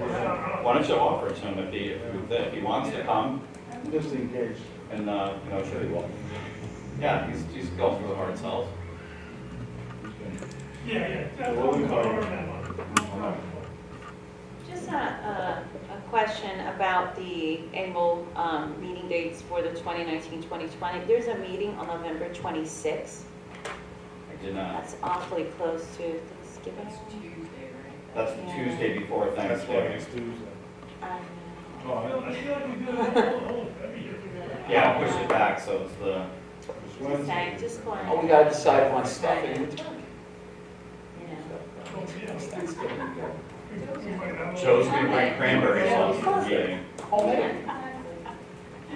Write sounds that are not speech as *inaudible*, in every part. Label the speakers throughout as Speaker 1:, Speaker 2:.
Speaker 1: why don't you offer it to him if he, if he wants to come?
Speaker 2: just in case.
Speaker 1: And, uh, you know, sure he will. Yeah, he's, he's going for the hard sells.
Speaker 3: Yeah, yeah. that's-
Speaker 2: What we call it.
Speaker 3: I'll remember that one.
Speaker 4: Just a, a, a question about the annual, um, meeting dates for the 2019, 2020. There's a meeting on November 26th.
Speaker 1: I did not,
Speaker 4: That's awfully close to Thanksgiving.
Speaker 5: That's Tuesday, right?
Speaker 1: that's the Tuesday before Thanksgiving.
Speaker 2: Tuesday.
Speaker 4: Um,
Speaker 2: Oh,
Speaker 3: I feel-
Speaker 2: I-
Speaker 3: I feel like we do it all, all, every year.
Speaker 1: Yeah, push it back, so it's the,
Speaker 2: it's
Speaker 4: Just saying,
Speaker 2: Wednesday.
Speaker 4: just going,
Speaker 6: Oh, we gotta decide on stuff in return.
Speaker 4: you know.
Speaker 3: Oh, yeah.
Speaker 6: Thanksgiving, yeah.
Speaker 3: We might have a-
Speaker 1: shows we bring cranberry sauce to the meeting.
Speaker 6: Oh, man.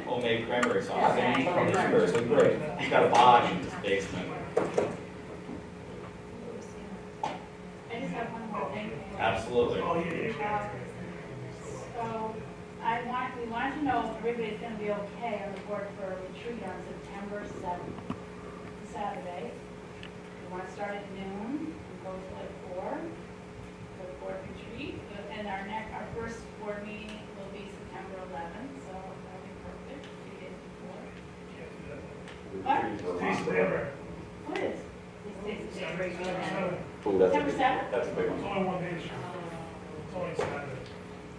Speaker 1: Homemade cranberry sauce.
Speaker 4: Yeah,
Speaker 1: He's
Speaker 4: cranberry
Speaker 1: great. He's got a bodge in his basement.
Speaker 4: Uh,
Speaker 7: I just have one more thing.
Speaker 1: Absolutely.
Speaker 3: Oh, yeah, yeah, yeah.
Speaker 7: So I want, we want to know if everybody's going to be okay on the board for a retreat on September 7th, Saturday. We want to start at noon and go till like 4, for the board retreat. And our next, our first board meeting will be September 11th, so that'll be perfect, two days before.
Speaker 3: Taste flavor.
Speaker 7: What is, this day's
Speaker 3: Seven,
Speaker 7: break?
Speaker 3: seven, seven.
Speaker 6: Ooh, that's a
Speaker 7: September Oh,
Speaker 6: big-
Speaker 7: 7th?
Speaker 6: That's a big
Speaker 3: It's
Speaker 6: one.
Speaker 3: only one day, it's it's only Saturday.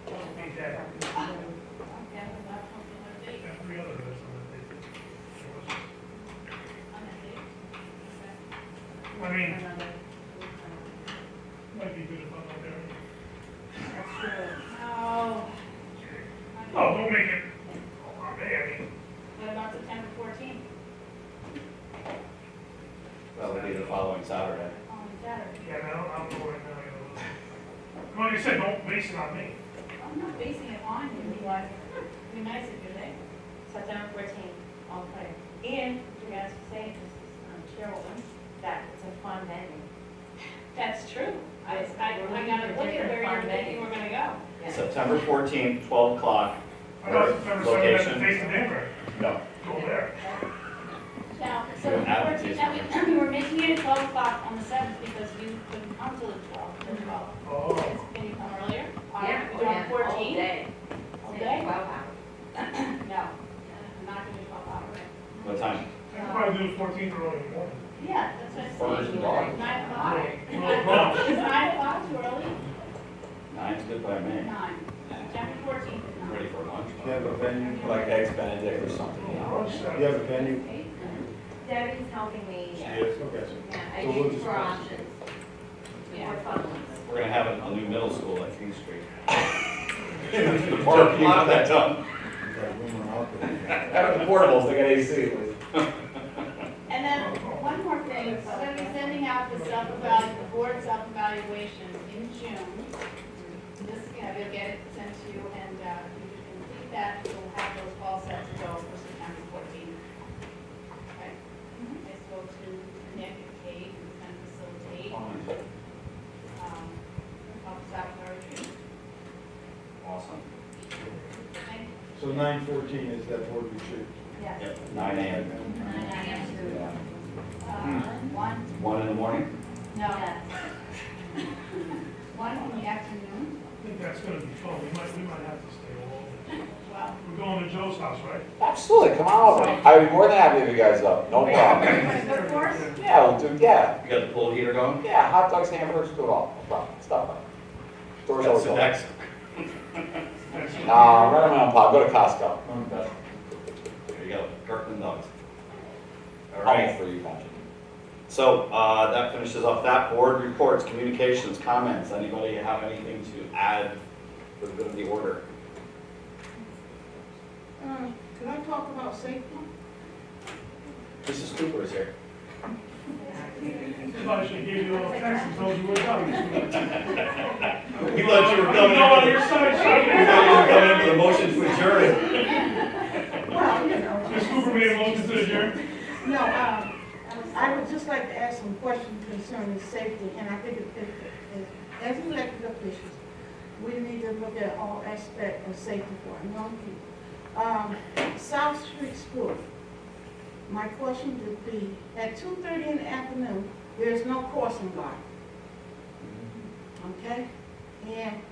Speaker 3: Don't be that.
Speaker 7: Okay, that's something
Speaker 3: We
Speaker 7: like
Speaker 3: have three other days on that day. I mean, might be good if I'm not there.
Speaker 7: No.
Speaker 3: Oh, don't make it. Oh, man, I mean,
Speaker 7: What about September fourteenth?
Speaker 1: That would be the following Saturday.
Speaker 7: Oh, better.
Speaker 3: yeah, I don't, I don't know right now. you know. Like I said, don't base it on me.
Speaker 7: I'm not basing it on you, but it'd be nice if you did. September fourteenth, I'll play. And you guys were saying this is um, Carolyn, that it's a fun venue. That's true. I, I, I gotta look at where you're thinking we're gonna go.
Speaker 1: September fourteenth, twelve o'clock.
Speaker 3: I thought September seventh, that's the face of Denver.
Speaker 1: No.
Speaker 3: Go there.
Speaker 7: Now, so
Speaker 1: You're an advocate.
Speaker 7: fourteen, I mean, we were making it at twelve o'clock on the seventh because you couldn't come till the twelve, the twelve.
Speaker 3: Oh.
Speaker 7: Can you come earlier?
Speaker 5: Yeah, oh,
Speaker 7: We're
Speaker 5: yeah,
Speaker 7: doing
Speaker 5: all
Speaker 7: fourteen?
Speaker 5: day.
Speaker 7: All
Speaker 5: Yeah,
Speaker 7: day?
Speaker 5: Twelve hours.
Speaker 7: No, I'm not gonna do twelve hours.
Speaker 1: What time?
Speaker 3: I could probably do the fourteenth or early in the morning.
Speaker 7: Yeah, that's what I'm
Speaker 6: First
Speaker 7: saying.
Speaker 6: of all.
Speaker 7: Nine o'clock?
Speaker 3: You know, well,
Speaker 7: Is nine o'clock too early?
Speaker 1: Nine's good by me.
Speaker 7: Nine. September fourteenth is
Speaker 1: I'm
Speaker 7: nine.
Speaker 1: ready for lunch.
Speaker 2: You have a venue,
Speaker 6: Like eggs Benedict or
Speaker 3: Oh,
Speaker 6: something, you know.
Speaker 3: Rosh
Speaker 2: you have
Speaker 3: Hashanah.
Speaker 2: a venue?
Speaker 5: Debbie's helping me.
Speaker 2: Okay.
Speaker 5: Yeah, I
Speaker 2: So we'll
Speaker 5: do
Speaker 2: just-
Speaker 5: for options.
Speaker 7: Yeah.
Speaker 5: For fun ones.
Speaker 1: We're gonna have a a new middle school at King Street. *laughs* Parking lot that dumb.
Speaker 2: You got room out there.
Speaker 6: Out of the portables, they got AC.
Speaker 7: And then, one more thing, so I'm gonna be sending out the self-evaluation, the board self-evaluation in June. This, you know, you'll get it sent to you, and, uh, if you can complete that, we'll have those all set to go for September fourteenth. Okay. I spoke to Nick and Kate, who's gonna facilitate, um, help us out with our retreat.
Speaker 1: Awesome.
Speaker 7: Thank you.
Speaker 2: So nine fourteen is that board retreat?
Speaker 7: Yes.
Speaker 1: Yep, nine AM.
Speaker 2: Yeah.
Speaker 7: Uh, One,
Speaker 1: One in the morning?
Speaker 7: no. *laughs* One in the afternoon,
Speaker 3: I think that's gonna be fun. We might, we might have to stay all over.
Speaker 7: well,
Speaker 3: We're going to Joe's house, right?
Speaker 6: Absolutely, come on over. I'd be more than happy if you guys up, no problem.
Speaker 7: of course,
Speaker 6: Yeah, we'll do, yeah,
Speaker 1: You got the pool heater going?
Speaker 6: yeah, hot dogs, hamburgers, do it all, no problem, stop by. Doors
Speaker 1: That's
Speaker 6: always
Speaker 1: the
Speaker 6: open.
Speaker 1: next.
Speaker 3: That's-
Speaker 6: Nah, right around, Pop, go to Costco.
Speaker 2: I'm done.
Speaker 1: There you go, Kirkland Dogs. All
Speaker 6: I'll
Speaker 1: right.
Speaker 6: offer you, Patrick.
Speaker 1: So uh, that finishes off that. Board reports, communications, comments. Anybody have anything to add for the good of the order?
Speaker 5: Can Um, I talk about safety?
Speaker 1: Mrs. Cooper is here.
Speaker 3: Somebody should give you a little text and told you what's up.
Speaker 1: We thought you were
Speaker 3: I know on
Speaker 1: coming,
Speaker 3: your side,
Speaker 1: we
Speaker 3: so.
Speaker 1: thought you were coming in for the motion to adjourn.
Speaker 8: Well, you know,
Speaker 3: Ms. Cooper made a motion to adjourn.
Speaker 8: no, um, I would just like to ask some questions concerning safety, and I think it, it, it- as elected officials, we need to look at all aspects of safety for our young people. Um, South Street School, my question would be, at two thirty in the afternoon, there's no crossing guard. Okay? And